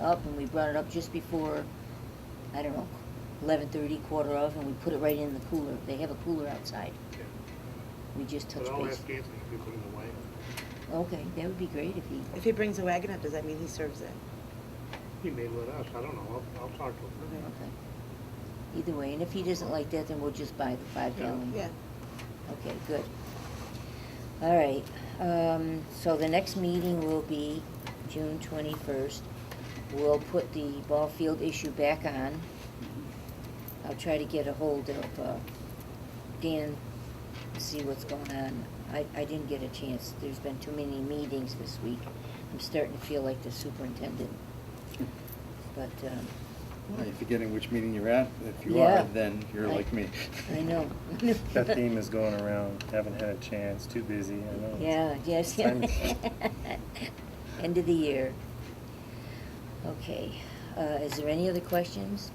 up and we brought it up just before, I don't know, eleven thirty, quarter of, and we put it right in the cooler. They have a cooler outside. Okay. We just touch But I'll base. ask Anthony if you put it away. Okay, that would be great if he, If he brings a wagon up, does that mean he serves it? He may let us, I don't know, I'll, I'll talk to him. Okay. okay. Either way, and if he doesn't like that, then we'll just buy the five Yeah. gallon. Yeah. Okay, good. All right, um, so the next meeting will be June twenty-first. We'll put the ball field issue back on. I'll try to get a hold of, uh, Dan, see what's going on. I, I didn't get a chance, there's been too many meetings this week. I'm starting to feel like the superintendent, but, um, Are you forgetting which meeting you're at? If you Yeah. are, then you're I- like me. I know. That theme is going around, haven't had a chance, too busy, I know. Yeah, yes. Time is- End of the year. Okay, uh, is there any other questions?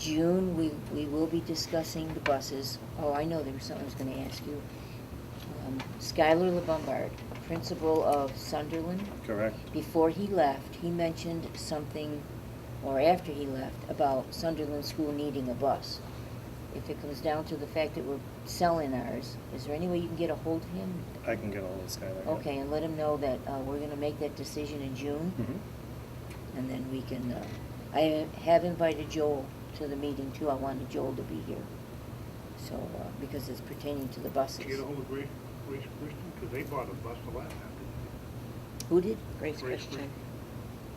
June, we, we will be discussing the buses. Oh, I know there was something I was gonna ask you. Um, Skylar LeBombard, principal of Sunderland, Correct. before he left, he mentioned something, or after he left, about Sunderland School needing a bus. If it comes down to the fact that we're selling ours, is there any way you can get a hold of him? I can get all this, Skylar. yeah. Okay, and let him know that uh, we're gonna make that decision in June, Mhm. Mm-hmm. and then we can, uh, I have invited Joel to the meeting too, I wanted Joel to be here. So, uh, because it's pertaining to the Did you buses. Get ahold of Grace, Grace Christian, because they bought a bus the last time. Who did? Grace Christian.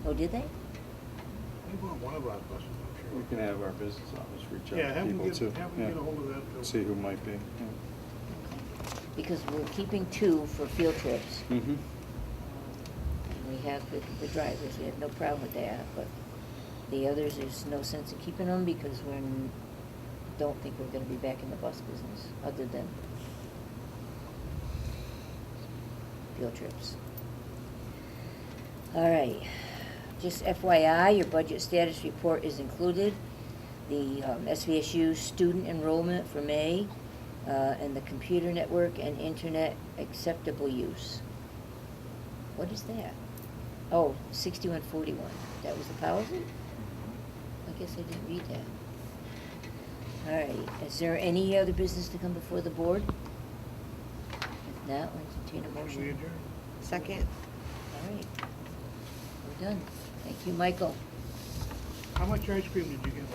Oh, did they? They bought one of our buses, We I'm can sure. have our business office reach Yeah, out to have them people get, too. have them Yeah. get ahold of that. uh, See who might be. Because we're keeping two for field trips. Hmm. Mm-hmm. And we have the, the drivers, we have no problem with that, but the others, there's no sense in keeping them because we're, n- don't think we're gonna be back in the bus business, other than field trips. All right, just FYI, your budget status report is included. The um, SVSU student enrollment for May, uh, and the computer network and internet acceptable use. What is that? Oh, sixty-one forty-one, that was the policy? I guess I didn't read that. All right, is there any other business to come before the board? If not, we'll entertain a motion. We adjourn. Second? All right, we're done. Thank you, Michael. How much ice cream did you get last